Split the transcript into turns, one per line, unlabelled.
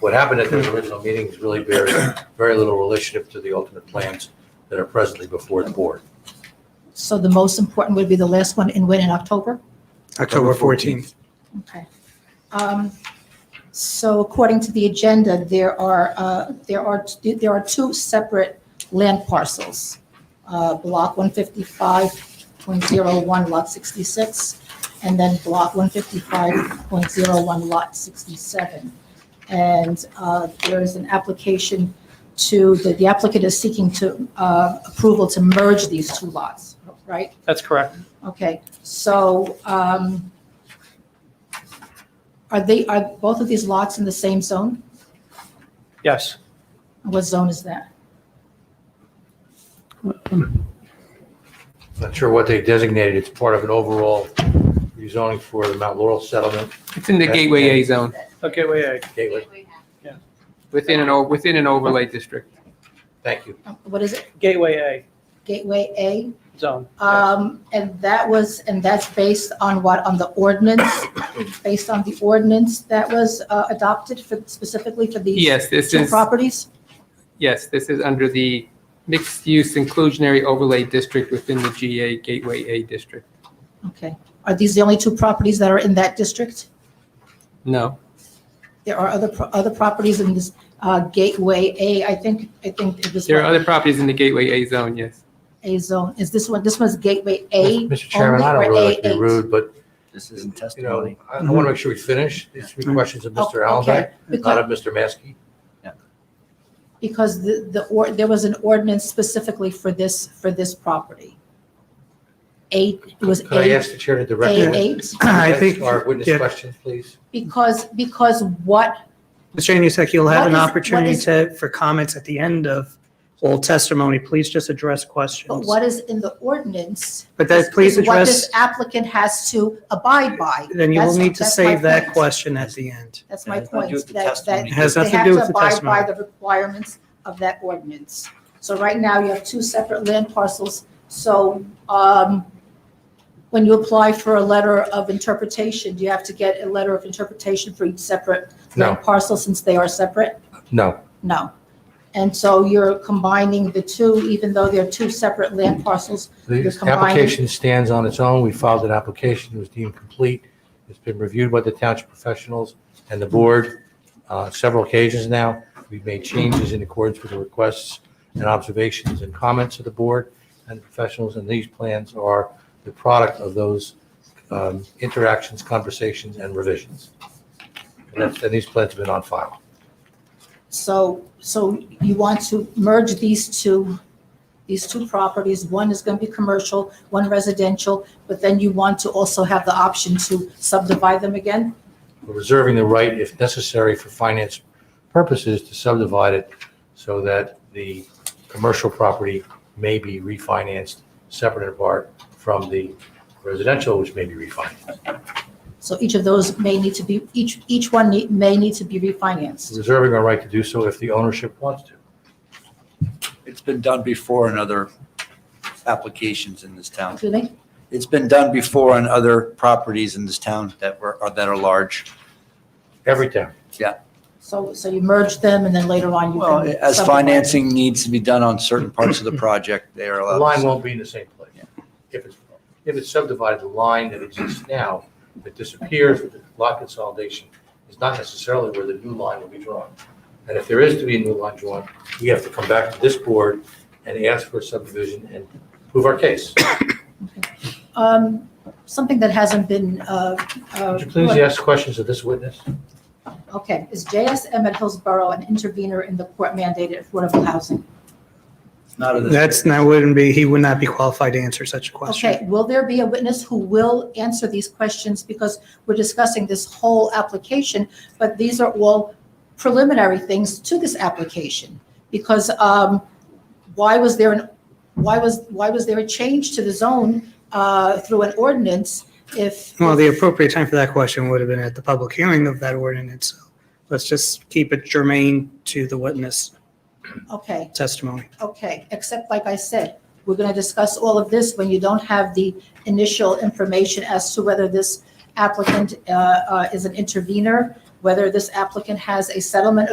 what happened at those original meetings really bears very little relationship to the ultimate plans that are presently before the board.
So the most important would be the last one in when in October?
October 14th.
Okay. Um, So according to the agenda, there are, uh, there are, there are two separate land parcels. uh, Block 155.01 Lot 66, and then Block 155.01 Lot 67. And uh, there is an application to, the the applicant is seeking to, uh, approval to merge these two lots, right?
That's correct.
Okay, so um, are they, are both of these lots in the same zone?
Yes.
What zone is that?
Not sure what they designated, it's part of an overall rezoning for the Mount Laurel settlement
It's in the Gateway A zone,
Okay, wait, wait.
gateway.
within an, o- within an overlay district.
Thank you.
Uh, What is it,
Gateway
Gateway A?
A zone.
Um, And that was, and that's based on what, on the ordinance? Based on the ordinance that was uh, adopted for, specifically for these
Yes, this
two
is,
properties?
yes, this is under the mixed-use inclusionary overlay district within the GA Gateway A district.
Okay, are these the only two properties that are in that district?
No,
There are other, pro- other properties in this uh, Gateway A, I think, I think it was.
there are other properties in the Gateway A zone, yes.
A zone, is this one, this one's gateway A?
Mr. Chairman, I
only,
don't
or
really like to be
A8?
rude, but,
This isn't
you know,
testimony.
I want to make sure we finish. These
Mm-hmm.
three questions of
Oh,
Mr. Allenby,
okay.
not
Because,
of Mr. Maskey.
because the, the, or, there was an ordinance specifically for this, for this property. Eight, it was
Could I
eight,
ask the chair to direct?
A
the-
eight,
I think,
Our witness
yeah.
questions, please.
because, because what,
Mr. Anusek, you'll have
What
an
is- what
opportunity
is-
to, for comments at the end of whole testimony. Please just address
but
questions.
what is in the ordinance?
But that, please
is What this
address,
applicant has to abide by.
then you will
That's-
need to
that's my
save that
point.
question at the end.
That's my
It has nothing
point,
to do with the
that, that.
testimony. It
has
they
nothing to
have
do with the
Abide by
testimony.
the requirements of that ordinance. So right now, you have two separate land parcels. So, um, when you apply for a letter of interpretation, do you have to get a letter of interpretation for each separate
No.
land parcel since they are separate?
No,
No. And so you're combining the two, even though they're two separate land parcels. You're
the
combining-
application stands on its own. We filed an application, it was deemed complete. It's been reviewed by the township professionals and the board uh, several occasions now. We've made changes in accordance with the requests and observations and comments of the board and professionals, and these plans are the product of those um, interactions, conversations, and revisions. And that's- and these plans have been on file.
So, so you want to merge these two, these two properties, one is going to be commercial, one residential, but then you want to also have the option to subdivide them again?
We're reserving the right, if necessary for finance purposes, to subdivide it so that the commercial property may be refinanced separate and apart from the residential, which may be refinanced.
So each of those may need to be, each, each one need- may need to be
We're
refinanced.
Reserving our right to do so if the ownership wants to.
It's been done before in other applications in this town.
Do they?
It's been done before on other properties in this town that were, or that are large.
Every town.
So, so you merge them and then later on you
Well,
can.
as
subdivide.
financing needs to be done on certain parts of the project, they are
The
allowed.
line won't be in the same place. If it's, if it's subdivided, the line that exists now, that disappears with the lot consolidation, is not necessarily where the new line will be drawn. And if there is to be a new line drawn, we have to come back to this board and ask for a subdivision and prove our case.
Um, Something that hasn't been, uh, uh.
Would you please ask questions of this witness?
Okay, is JSM at Hillsborough an intervener in the court mandated affordable housing?
Not of this-
That's, that wouldn't be, he would not be qualified to answer such a question.
Okay, will there be a witness who will answer these questions? Because we're discussing this whole application, but these are all preliminary things to this application. Because um, why was there an, why was, why was there a change to the zone uh, through an ordinance if?
Well, the appropriate time for that question would have been at the public hearing of that ordinance. So Let's just keep it germane to the witness
Okay.
testimony.
Okay, except like I said, we're going to discuss all of this when you don't have the initial information as to whether this applicant uh, uh, is an intervener, whether this applicant has a settlement